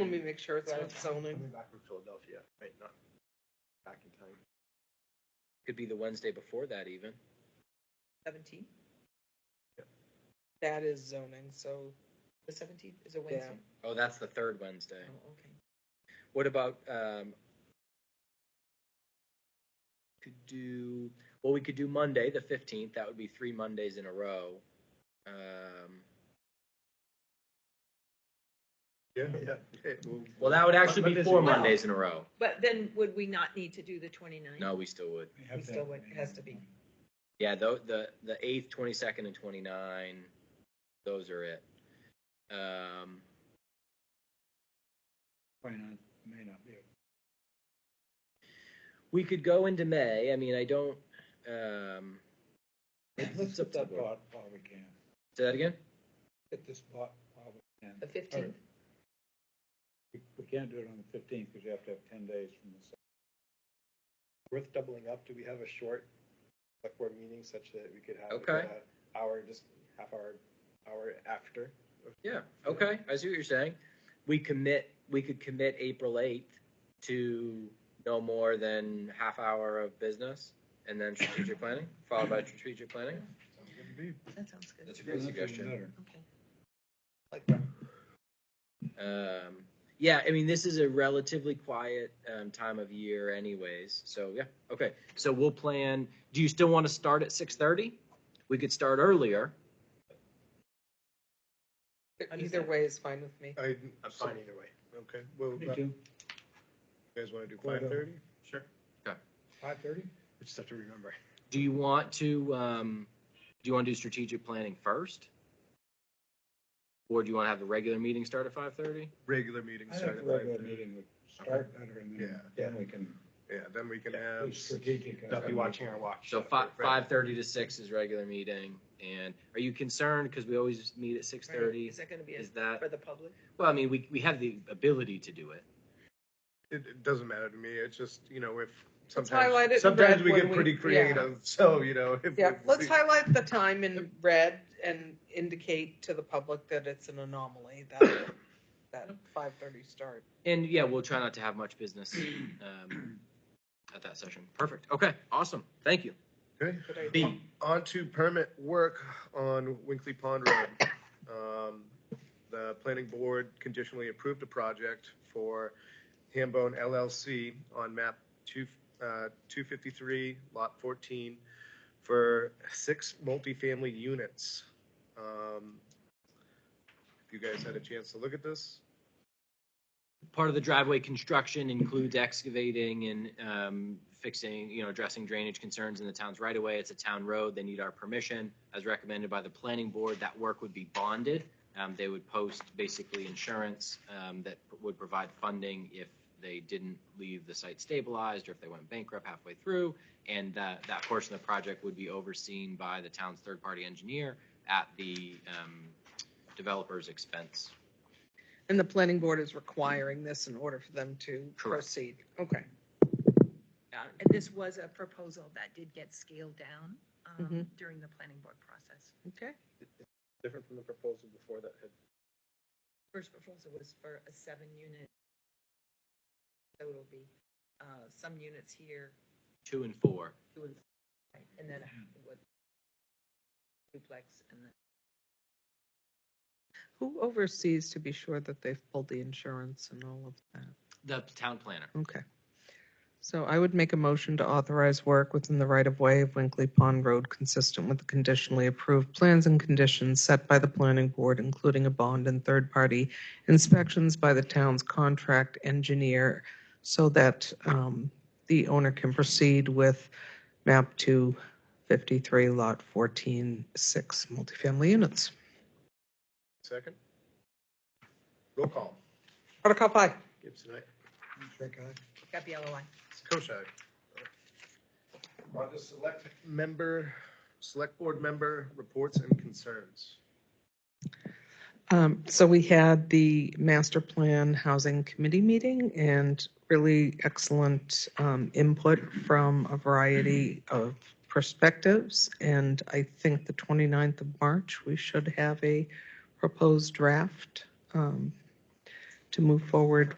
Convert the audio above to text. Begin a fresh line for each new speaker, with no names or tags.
Let me make sure it's
Right.
with zoning.
Coming back from Philadelphia, right, not back in time.
Could be the Wednesday before that even.
Seventeen?
That is zoning, so
The seventeenth is a Wednesday?
Oh, that's the third Wednesday.
Oh, okay.
What about um could do well we could do Monday the 15th. That would be 3 Mondays in a row. Um
Yeah, yeah.
well that would actually be
Mondays
four
in a row.
Mondays in a row.
But then would we not need to do the twenty-ninth?
No, we still would.
We have
We
to-
still would- it has to be.
Yeah, the the the 8th, 22nd and 29 those are it. Um
Twenty-nine may not be.
we could go into May. I mean, I don't um
Let's
up
get
to the
that
board.
bought while we can.
Say that again?
Get this bought while we can.
The fifteenth,
We- We can't do it on the fifteenth because you have to have ten days from the. second.
Worth doubling up, do we have a short, like, board meeting such that we could have? like,
Okay.
a Hour, just half hour, hour after?
Yeah, okay, I see what you're saying. We commit, we could commit April eighth to no more than half hour of business and then strategic planning, followed by strategic planning.
that sounds good,
That's a great
That's even
suggestion.
better.
okay.
Like, that.
Um, yeah, I mean, this is a relatively quiet, um, time of year anyways, so yeah, okay. So we'll plan, do you still want to start at six thirty? We could start earlier.
either
Understand.
way is fine with me.
I, I'm
So-
fine either way. Okay, well,
Me
uh, you
too.
guys wanna do
Well
five
done.
thirty? Sure.
Five thirty?
We just have to remember.
Do you want to, um, do you want to do strategic planning first? Or do you want to have the regular meeting start at five thirty?
Regular meeting
I think
started
the
by,
regular meeting would start better and then,
Yeah.
then we can
yeah, then we can have,
be strategic.
not be watching our watch.
So
after,
five,
right.
five thirty to six is regular meeting, and are you concerned, because we always meet at six thirty,
Is that gonna be a-
is that,
for the public?
well, I mean, we, we have the ability to do it.
It, it doesn't matter to me, it's just, you know, if
Let's highlight it in
sometimes, sometimes
red
we
when
get
we-
pretty
yeah.
creative, so, you know. if
Yeah,
we-
let's highlight the time in red and indicate to the public that it's an anomaly, that, that five thirty start.
And yeah, we'll try not to have much business, um, at that session. Perfect, okay, awesome, thank you.
Okay.
Good idea.
B,
On to permit work on Winkley Pond Road. Um, The planning board conditionally approved a project for Hambone LLC on map two, uh, 253, lot 14, for six multifamily units. Um, If you guys had a chance to look at this,
part of the driveway construction includes excavating and um, fixing, you know, addressing drainage concerns in the town's right of way. It's a town road. They need our permission. As recommended by the planning board, that work would be bonded. Um, They would post basically insurance um, that would provide funding if they didn't leave the site stabilized or if they went bankrupt halfway through. And that, that portion of the project would be overseen by the town's third-party engineer at the um, developer's expense.
And the planning board is requiring this in order for them to
Correct.
proceed.
Um,
Okay.
And this was a proposal that did get scaled down, um,
Mhm.
during the planning board process.
Okay.
different from the proposal before that had
First proposal was for a seven-unit. So it'll be, uh, some units here,
Two and four.
two and, and then what? Duplex and then.
Who oversees to be sure that they've pulled the insurance and all of that?
The town planner.
Okay. So I would make a motion to authorize work within the right-of-way of Winkley Pond Road consistent with the conditionally approved plans and conditions set by the planning board, including a bond and third-party inspections by the town's contract engineer so that um, the owner can proceed with map 253, lot 14, six multifamily units.
second. Roll call.
Article five.
Gibson, aye.
Trick eye.
Gabriella, why?
Koshak. On to select member, select board member reports and concerns.
Um, So we had the master plan housing committee meeting and really excellent um, input from a variety of perspectives. And I think the 29th of March, we should have a proposed draft um, to move forward